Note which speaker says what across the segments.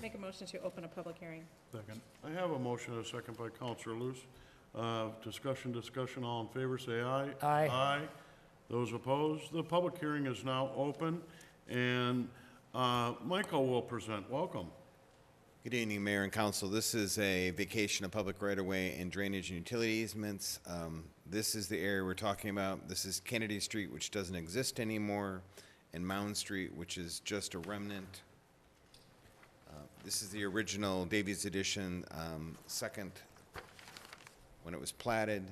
Speaker 1: Make a motion to open a public hearing.
Speaker 2: Second. I have a motion, and a second by Counselor Loose. Uh, Discussion, discussion, all in favor, say aye.
Speaker 3: Aye.
Speaker 2: Aye. Those opposed, the public hearing is now open, and uh, Michael will present. Welcome.
Speaker 4: Good evening, Mayor and Council. This is a vacation of public right-of-way and drainage and utility easements. Um, This is the area we're talking about. This is Kennedy Street, which doesn't exist anymore, and Mound Street, which is just a remnant. Uh, This is the original Davies Edition, um, second when it was platted.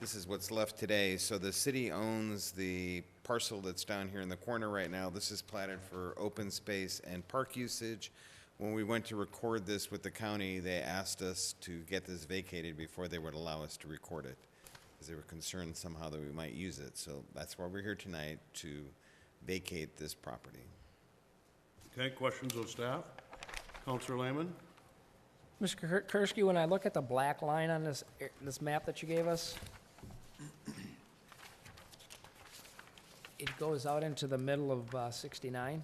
Speaker 4: This is what's left today. So the city owns the parcel that's down here in the corner right now. This is platted for open space and park usage. When we went to record this with the county, they asked us to get this vacated before they would allow us to record it, because they were concerned somehow that we might use it. So that's why we're here tonight, to vacate this property.
Speaker 2: Okay, questions of staff? Counselor Lehman?
Speaker 3: Mr. Kur- Kersky, when I look at the black line on this, ar- this map that you gave us, it goes out into the middle of uh, 69.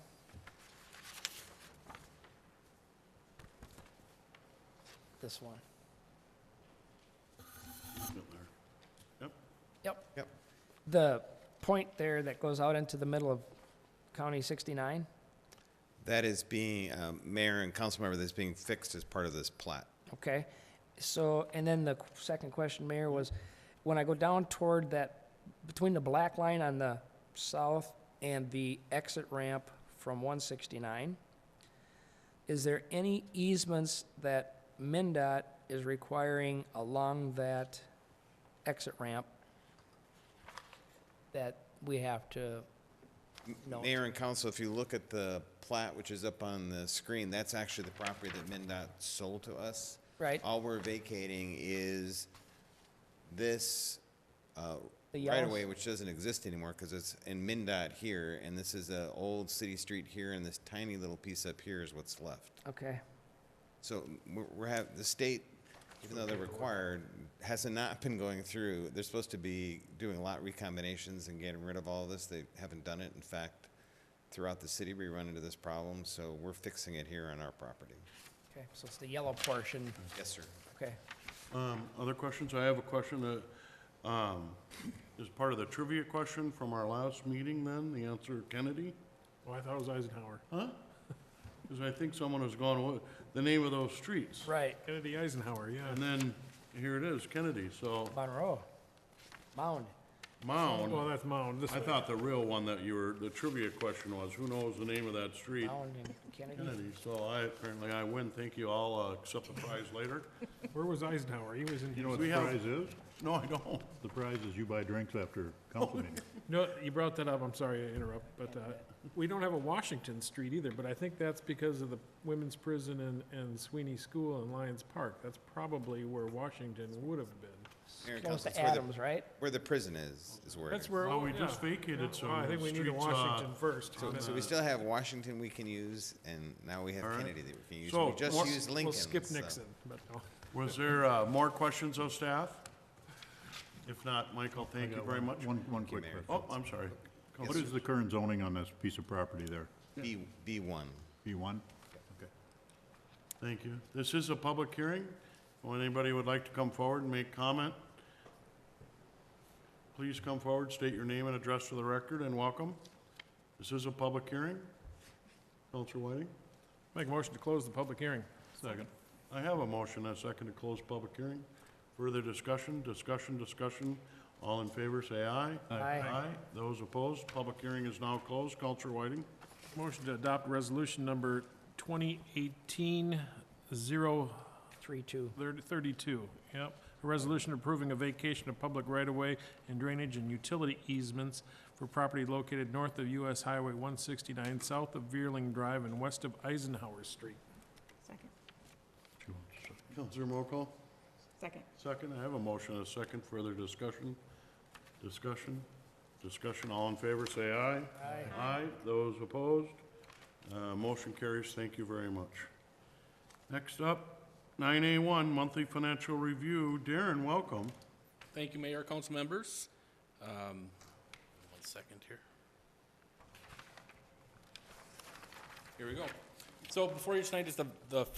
Speaker 3: This one.
Speaker 2: Yep,
Speaker 3: Yep.
Speaker 4: Yep.
Speaker 3: The point there that goes out into the middle of County 69?
Speaker 4: That is being, um, mayor and council member, that's being fixed as part of this plat.
Speaker 3: Okay, so, and then the qu- second question, Mayor, was when I go down toward that, between the black line on the south and the exit ramp from one sixty-nine, is there any easements that MinDOT is requiring along that exit ramp that we have to note?
Speaker 4: Mayor and council, if you look at the plat, which is up on the screen, that's actually the property that MinDOT sold to us.
Speaker 3: Right.
Speaker 4: All we're vacating is this uh,
Speaker 3: The yellow-
Speaker 4: right-of-way, which doesn't exist anymore because it's in MinDOT here, and this is an old city street here, and this tiny little piece up here is what's left.
Speaker 3: Okay,
Speaker 4: So we're- we're have, the state, even though they're required, has not been going through, they're supposed to be doing lot recombinations and getting rid of all this, they haven't done it. In fact, throughout the city, we run into this problem, so we're fixing it here on our property.
Speaker 3: okay, so it's the yellow portion,
Speaker 4: Yes, sir.
Speaker 3: okay.
Speaker 2: Um, Other questions? I have a question that um, is part of the trivia question from our last meeting then, the answer Kennedy?
Speaker 5: Oh, I thought it was Eisenhower.
Speaker 2: Because I think someone has gone, "What- the name of those streets.
Speaker 3: Right.
Speaker 5: Kennedy Eisenhower, yeah.
Speaker 2: And then, here it is, Kennedy, so
Speaker 3: Monroe, Mound.
Speaker 5: Well,
Speaker 2: Mound,
Speaker 5: that's Mound. This
Speaker 2: I
Speaker 5: way.
Speaker 2: thought the real one that you were, the trivia question was, who knows the name of that street?
Speaker 3: Mound and Kennedy.
Speaker 2: Kennedy, so I, apparently I win, thank you, I'll uh, accept the prize later.
Speaker 5: Where was Eisenhower? He was in.
Speaker 2: know what
Speaker 6: The
Speaker 2: We have-
Speaker 6: prize is,
Speaker 2: No, I don't.
Speaker 6: the prize is you buy drinks after council meeting.
Speaker 5: No, you brought that up. I'm sorry to interrupt, but uh, we don't have a Washington Street either, but I think that's because of the women's prison and, and Sweeney School and Lions Park. That's probably where Washington would have been.
Speaker 4: Mayor and
Speaker 3: Close
Speaker 4: council,
Speaker 3: to
Speaker 4: it's where the-
Speaker 3: Adams, right?
Speaker 4: Where the prison is, is where it
Speaker 5: That's
Speaker 4: is.
Speaker 5: where.
Speaker 2: Well, we
Speaker 5: yeah.
Speaker 2: just vacated some
Speaker 5: Well, I think we need a
Speaker 2: streets, uh,
Speaker 5: Washington first.
Speaker 4: So, so we still have Washington we can use, and now we have Kennedy that we can use.
Speaker 2: So
Speaker 4: We just
Speaker 2: what's-
Speaker 4: used Lincoln.
Speaker 5: We'll skip
Speaker 4: so-
Speaker 5: Nixon, but no.
Speaker 2: Was there uh, more questions of staff? If not, Michael, thank you very much.
Speaker 6: One, one quick
Speaker 4: Mayor.
Speaker 6: question.
Speaker 2: Oh, I'm sorry.
Speaker 6: What is the current zoning on this piece of property there?
Speaker 4: B, B one.
Speaker 6: B1? Okay.
Speaker 2: Thank you. This is a public hearing. If anybody would like to come forward and make comment, please come forward, state your name and address for the record, and welcome. This is a public hearing. Counselor Whiting?
Speaker 5: Make a motion to close the public hearing.
Speaker 2: Second. I have a motion and a second to close public hearing. Further discussion, discussion, discussion. All in favor, say aye.
Speaker 3: Aye. Aye.
Speaker 2: Those opposed, public hearing is now closed. Counselor Whiting?
Speaker 5: Motion to adopt resolution number 2018 0
Speaker 3: Three, two.
Speaker 5: Thirty- 32, yep. A resolution approving a vacation of public right-of-way and drainage and utility easements for property located north of US Highway 169, south of Veerling Drive, and west of Eisenhower Street.
Speaker 1: Second.
Speaker 2: Counselor Mokel?
Speaker 1: Second.
Speaker 2: Second, I have a motion and a second. Further discussion, discussion, discussion. All in favor, say aye. Aye. Aye. Those opposed? Uh, motion carries. Thank you very much. Next up, nine A one, monthly financial review. Darren, welcome.
Speaker 7: Thank you, Mayor, council members. Um, One second here. Here we go. So before you tonight is the the